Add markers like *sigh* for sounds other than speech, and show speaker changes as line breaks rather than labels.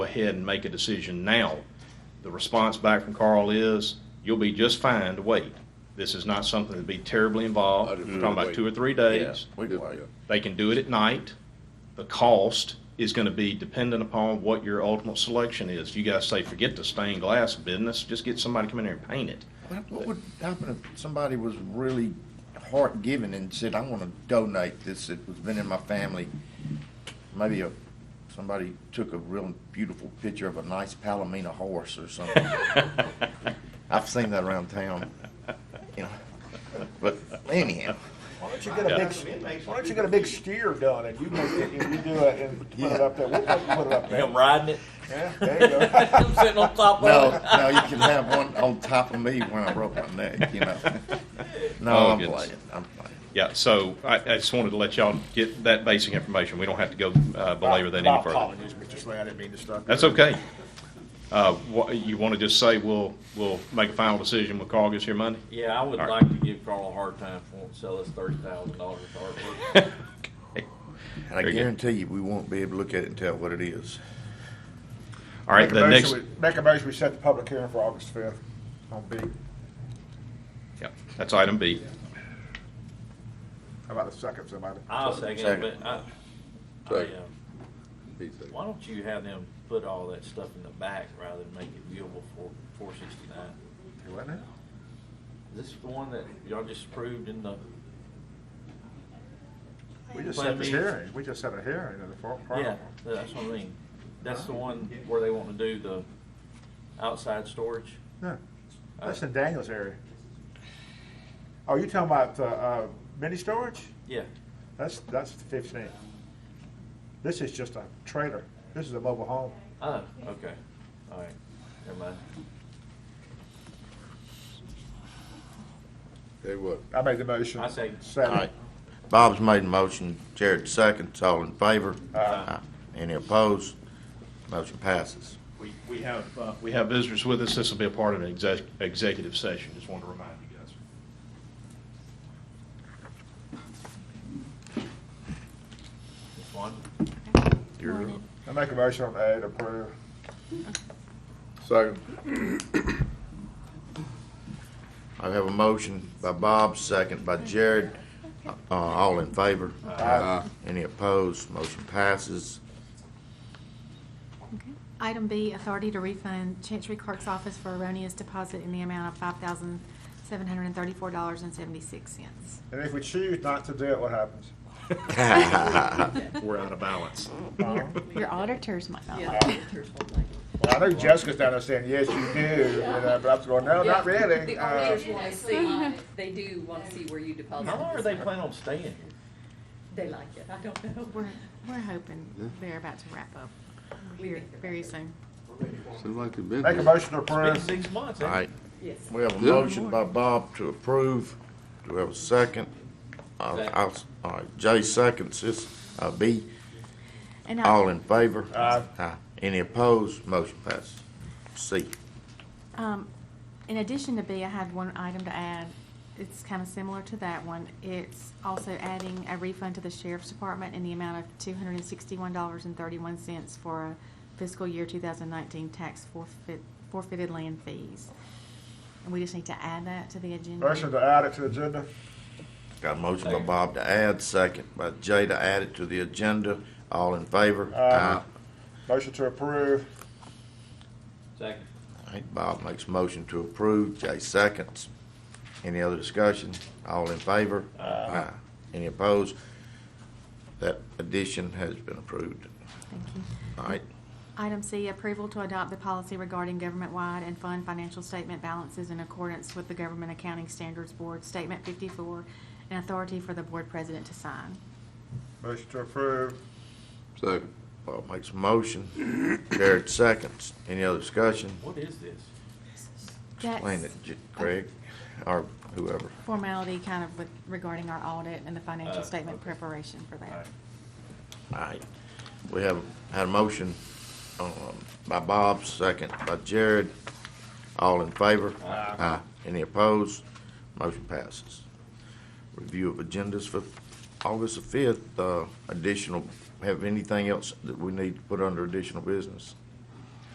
ahead and make a decision now. The response back from Carl is, you'll be just fine to wait. This is not something that'd be terribly involved. We're talking about two or three days.
We can wait.
They can do it at night. The cost is going to be dependent upon what your ultimate selection is. You guys say, forget the stained glass business, just get somebody to come in here and paint it.
What what would happen if somebody was really heart giving and said, I want to donate this, it was been in my family? Maybe a, somebody took a real beautiful picture of a nice Palomino horse
*laughs*
or something. I've seen that around town, you know. But anyhow,
Why don't you get a big, why don't you get a big steer done and you make it, and you do it and put it up there, we'll put put it up there.
Him riding it, *laughs*
Yeah, there you go.
him sitting on top
no,
of it.
no, you can have one on top of me when I broke my neck, you know. No,
Oh,
I'm
goodness.
playing, I'm playing.
Yeah, so I, I just wanted to let y'all get that basic information. We don't have to go uh, belabor that
My
any further.
apologies, Mr. Slay, I didn't mean to stop. you.
That's okay. Uh, wha- You want to just say, we'll, we'll make a final decision when Carl gets here Monday?
Yeah, I would
All
like to give Carl a hard time for wanting to sell us thirty thousand dollars of artwork.
And I
Very good.
guarantee you, we won't be able to look at it and tell what it is.
All right,
Make a
the
motion
next,
we- Make a motion, we set the public hearing for August fifth on B.
yeah, that's item B.
How about a second, somebody?
I'll second it, but I, I,
Second.
uh, why don't you have them put all that stuff in the back rather than make it viewable for four sixty-nine?
You want it?
This is the one that y'all just approved in the,
We just
Plan
set the
B.
hearing, we just set a hearing in the far, far.
yeah, that's what I mean. That's the one where they want to do the outside storage.
No, that's in Daniel's area. Oh, you talking about, uh, uh, mini storage?
Yeah,
That's, that's the fifteen. This is just a trailer. This is a mobile home.
oh, okay, all right, never mind.
They would.
I made the motion.
I second.
Second.
Bob's made a motion, Jared seconds, all in favor?
Aye.
Any opposed? Motion passes.
We, we have, uh, we have visitors with us. This will be a part of an exec- executive session. Just wanted to remind you guys.
This one,
I make a motion on A to approve.
Second.
I have a motion by Bob, second by Jared, uh, all in favor?
Aye.
Any opposed? Motion passes.
Okay. Item B, authority to refund Chancery Clerk's Office for erroneous deposit in the amount of five thousand seven hundred and thirty-four dollars and seventy-six cents.
And if we choose not to do it, what happens?
We're out of balance.
*laughs* Your auditors might not like it.
Well, I know Jessica's down there saying, yes, you do, you know, but I'm going, no, not really.
The
Uh,
auditors want to see, they do want to see where you deposit.
how long are they planning on staying here?
They like it, I don't know.
We're, we're hoping they're about to wrap up here very soon.
Seems like they've been
Make a
here.
motion to
Been
approve.
six months,
All
ain't it?
right,
Yes.
we have a
Yeah.
motion by Bob to approve. Do we have a second? Uh, I'll- All right, Jay seconds, this, uh, B,
And I-
all in favor?
Aye.
Aye. Any opposed? Motion passes. C.
Um, in addition to B, I had one item to add. It's kind of similar to that one. It's also adding a refund to the sheriff's department in the amount of two hundred and sixty-one dollars and thirty-one cents for a fiscal year two thousand nineteen tax forfeit, forfeited land fees. And we just need to add that to the agenda.
Motion to add it to the agenda.
Got a motion by Bob to add, second by Jay to add it to the agenda. All in favor?
Aye. Uh, Motion to approve.
Second.
All right, Bob makes a motion to approve, Jay seconds. Any other discussion? All in favor? Aye. Any opposed? That addition has been approved.
Thank you.
All right,
Item C, approval to adopt the policy regarding government-wide and fund financial statement balances in accordance with the Government Accounting Standards Board Statement fifty-four and authority for the board president to sign.
Motion to approve.
Second.
Bob makes a motion, Jared seconds. Any other discussion?
What is this?
Explain it,
That's-
J- Craig, or whoever.
formality kind of with regarding our audit and the
Uh,
financial statement
okay.
preparation for that.
All right, we have, had a motion um, by Bob, second by Jared. All in favor? Aye. Any opposed? Motion passes. Review of agendas for August the fifth, uh, additional, have anything else that we need to put under additional business?